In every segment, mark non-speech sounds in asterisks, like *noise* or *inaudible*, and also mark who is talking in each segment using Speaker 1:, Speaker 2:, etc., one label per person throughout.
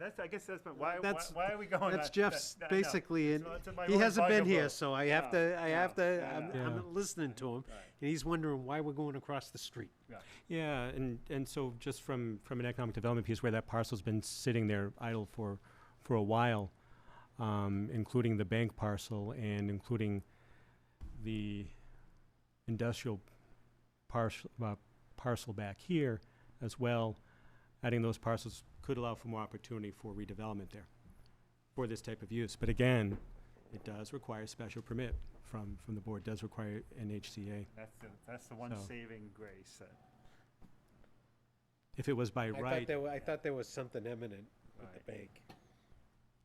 Speaker 1: That's, I guess that's, but why, why,
Speaker 2: That's-
Speaker 1: why are we going?
Speaker 2: That's
Speaker 1: Oh, that-
Speaker 2: Jeff's
Speaker 1: that- that- no.
Speaker 2: basically,
Speaker 1: So it's in
Speaker 2: and
Speaker 1: my
Speaker 2: he
Speaker 1: own
Speaker 2: hasn't been
Speaker 1: bugaboo.
Speaker 2: here, so I have
Speaker 1: No,
Speaker 2: to, I
Speaker 1: no,
Speaker 2: have to,
Speaker 1: no,
Speaker 2: I'm,
Speaker 1: no.
Speaker 2: I'm
Speaker 3: Yeah.
Speaker 2: listening to him.
Speaker 1: Right.
Speaker 2: And he's wondering why we're going across the street.
Speaker 3: Yeah, and, and so just from, from an economic development piece, where that parcel's been sitting there idle for, for a while, um, including the bank parcel and including the industrial parcel, uh, parcel back here as well, adding those parcels could allow for more opportunity for redevelopment there for this type of use. But again, it does require special permit from, from the board, does require an HCA.
Speaker 1: That's the, that's the one
Speaker 3: So.
Speaker 1: saving grace that,
Speaker 3: If it was by
Speaker 2: I thought
Speaker 3: right,
Speaker 2: there, wa- I thought there was something imminent with
Speaker 1: Right.
Speaker 2: the bank.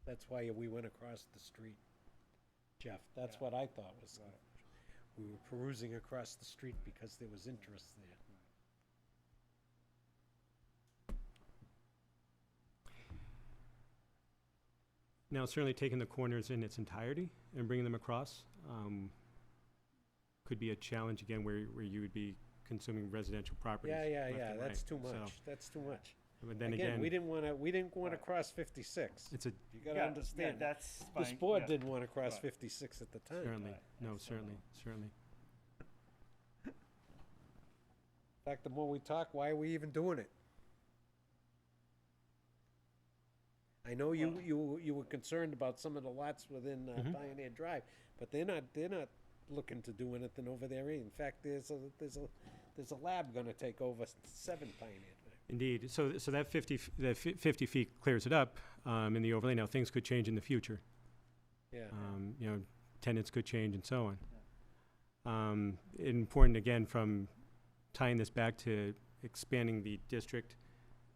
Speaker 2: That's why we went across the street, Jeff. That's what I thought was,
Speaker 1: Right.
Speaker 2: we were perusing across the street because there was interest there.
Speaker 3: Now, certainly taking the corners in its entirety and bringing them across um, could be a challenge again where, where you would be consuming residential properties.
Speaker 2: Yeah, yeah,
Speaker 3: left
Speaker 2: yeah,
Speaker 3: and
Speaker 2: that's
Speaker 3: right.
Speaker 2: too
Speaker 3: So,
Speaker 2: much, that's too much.
Speaker 3: But then
Speaker 2: Again, we
Speaker 3: again,
Speaker 2: didn't wanna, we didn't wanna
Speaker 1: Right.
Speaker 2: cross fifty-six.
Speaker 3: it's a,
Speaker 2: You
Speaker 1: yeah,
Speaker 2: gotta
Speaker 1: yeah,
Speaker 2: understand, that.
Speaker 1: that's
Speaker 2: this
Speaker 1: fine,
Speaker 2: board
Speaker 1: yeah.
Speaker 2: didn't wanna cross
Speaker 1: Right.
Speaker 2: fifty-six at the time.
Speaker 3: certainly,
Speaker 1: Right,
Speaker 3: no,
Speaker 1: that's the
Speaker 3: certainly,
Speaker 1: law.
Speaker 3: certainly.
Speaker 2: In fact, the more we talk, why are we even doing it? I know you,
Speaker 1: Well-
Speaker 2: you, you were concerned about some of the lots within uh,
Speaker 3: Mhm.
Speaker 2: Pioneer Drive, but they're not, they're not looking to do anything over there. either. In fact, there's a, there's a, there's a lab gonna take over s- seven Pioneer Drive.
Speaker 3: Indeed, so, so that 50, f- that fi- 50 feet clears it up um, in the overlay. Now, things could change in the future.
Speaker 2: Yeah,
Speaker 3: um, you know, tenants could change and so on. Um, important again from tying this back to expanding the district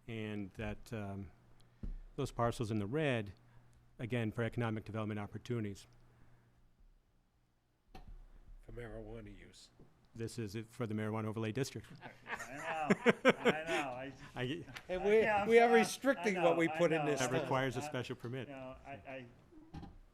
Speaker 3: and that, um, those parcels in the red, again, for economic development opportunities.
Speaker 2: for marijuana use.
Speaker 3: This is it for the marijuana overlay district.
Speaker 1: I know, I know, I, just-
Speaker 3: I g
Speaker 2: And
Speaker 1: we- yeah,
Speaker 2: we're,
Speaker 1: I'm
Speaker 2: we
Speaker 1: we are sorry,
Speaker 2: are
Speaker 1: I- I
Speaker 2: restricting what we
Speaker 1: know, I
Speaker 2: put in
Speaker 1: know,
Speaker 2: this
Speaker 1: I
Speaker 3: that
Speaker 1: know.
Speaker 3: requires a
Speaker 1: Uh,
Speaker 3: special permit.
Speaker 1: you know, I, I,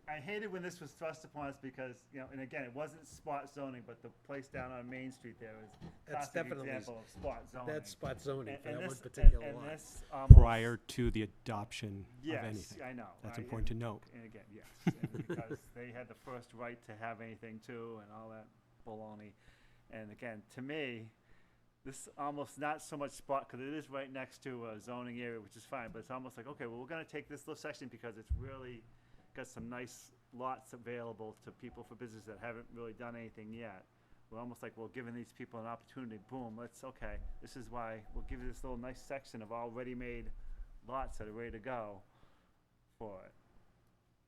Speaker 1: I hated when this was thrust upon us because, you know, and again, it wasn't spot zoning, but the place down on Main Street there was
Speaker 2: That's
Speaker 1: classic
Speaker 2: definitely s-
Speaker 1: example of spot zoning.
Speaker 2: That's spot zoning
Speaker 1: And-
Speaker 2: for
Speaker 1: and
Speaker 2: that one
Speaker 1: this- and-
Speaker 2: particular
Speaker 1: and
Speaker 2: lot.
Speaker 1: this almost-
Speaker 3: Prior to the adoption of
Speaker 1: Yes,
Speaker 3: anything.
Speaker 1: I know.
Speaker 3: That's
Speaker 1: I-
Speaker 3: important to note.
Speaker 1: And again, yes, and *laughs* because they had the first right to have anything too, and all that baloney. And again, to me, this almost not so much spot because it is right next to a zoning area, which is fine. But it's almost like okay, well, we're going to take this little section because it's really got some nice lots available to people for business that haven't really done anything yet. We're almost like we're giving these people an opportunity. Boom, let's okay. This is why we'll give you this little nice section of all ready-made lots that are ready to go for it.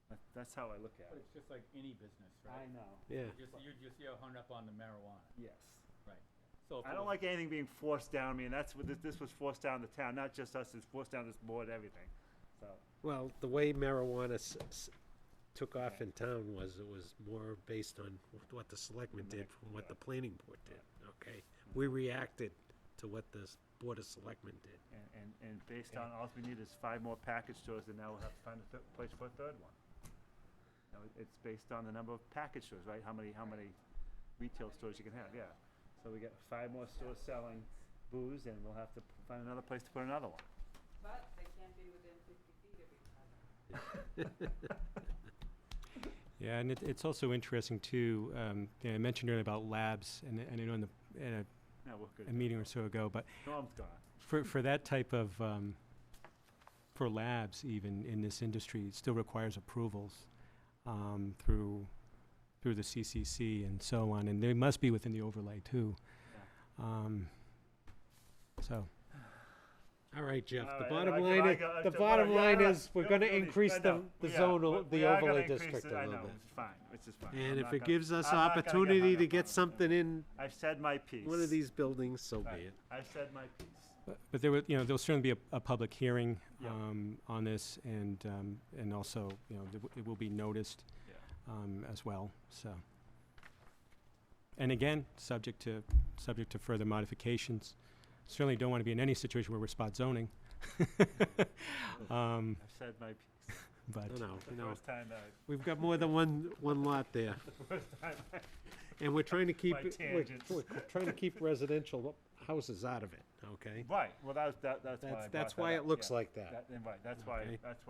Speaker 1: That, that's how I look at
Speaker 4: But
Speaker 1: it.
Speaker 4: it's just like any business,
Speaker 1: I
Speaker 4: right?
Speaker 1: know.
Speaker 2: Yeah.
Speaker 4: Just, you're just, you're hung up on the marijuana,
Speaker 1: Yes.
Speaker 4: right? So if
Speaker 1: I
Speaker 4: it
Speaker 1: don't
Speaker 4: was-
Speaker 1: like anything being forced down me, and that's what this, this was forced down the town, not just us. It's forced down this board, everything. So
Speaker 2: Well, the way marijuana s- s- took off in town was, it was more based on wh- what the selectmen did from what the planning board did, okay? We reacted to what the s- Board of Selectmen did.
Speaker 1: and, and, and based on all we need is five more package stores, and now we'll have to find a th- place for a third one. Now, it- it's based on the number of package stores, right? How many how many retail stores you can have? Yeah. So we got five more stores selling booze, and we'll have to p- find another place to put another one.
Speaker 5: But they can't be within fifty feet of each other.
Speaker 3: Yeah, and it, it's also interesting too, um, you know, I mentioned earlier about labs and, and I know in the, in a-
Speaker 1: No, we're good.
Speaker 3: a meeting or so ago, but
Speaker 1: Norm's gone.
Speaker 3: For, for that type of, um, for labs even in this industry, it still requires approvals, um, through, through the CCC and so on, and they must be within the overlay too. Um, so,
Speaker 2: All right, Jeff,
Speaker 1: All
Speaker 2: the
Speaker 1: right,
Speaker 2: bottom
Speaker 1: Uh, I-
Speaker 2: line,
Speaker 1: I
Speaker 2: is
Speaker 1: got-
Speaker 2: the
Speaker 1: well,
Speaker 2: bottom
Speaker 1: yeah,
Speaker 2: line
Speaker 1: no,
Speaker 2: is, we're
Speaker 1: no,
Speaker 2: gonna
Speaker 1: no,
Speaker 2: increase
Speaker 1: I
Speaker 2: the,
Speaker 1: know.
Speaker 2: the
Speaker 1: Yeah,
Speaker 2: zonal,
Speaker 1: we- we
Speaker 2: the
Speaker 1: are gonna
Speaker 2: overlay
Speaker 1: increase
Speaker 2: district
Speaker 1: it,
Speaker 2: a
Speaker 1: I
Speaker 2: little
Speaker 1: know,
Speaker 2: bit.
Speaker 1: It's fine, it's just fine. I'm
Speaker 2: And if
Speaker 1: not
Speaker 2: it
Speaker 1: gonna-
Speaker 2: gives us
Speaker 1: I'm not gonna get hung
Speaker 2: opportunity to
Speaker 1: up on
Speaker 2: get
Speaker 1: it.
Speaker 2: something in
Speaker 1: I've said my piece.
Speaker 2: one of these buildings, so
Speaker 1: Right.
Speaker 2: be it.
Speaker 1: I've said my piece.
Speaker 3: but- but there would, you know, there'll certainly be a, a public hearing,
Speaker 1: Yeah.
Speaker 3: um, on this and, um, and also, you know, it, w- it will be noticed,
Speaker 1: Yeah.
Speaker 3: um, as well, so. And again, subject to, subject to further modifications. Certainly don't want to be in any situation where we're spot zoning. *laughs* Um,
Speaker 1: I've said my piece.
Speaker 3: but
Speaker 2: No, no,
Speaker 1: The
Speaker 2: Hmm. you know,
Speaker 1: first time that, I- *laughs*
Speaker 2: we've got more than one, one lot there.
Speaker 1: the first time, I-
Speaker 2: And we're trying to keep,
Speaker 1: My
Speaker 2: it- we're,
Speaker 1: tangents.
Speaker 2: we're trying to keep residential houses out of it, okay?
Speaker 1: right, well, that was, that, that's why I
Speaker 2: That's,
Speaker 1: brought
Speaker 2: that's
Speaker 1: that
Speaker 2: why
Speaker 1: up,
Speaker 2: it looks
Speaker 1: yeah.
Speaker 2: like that.
Speaker 1: That, and right, that's why,
Speaker 2: Okay.
Speaker 1: that's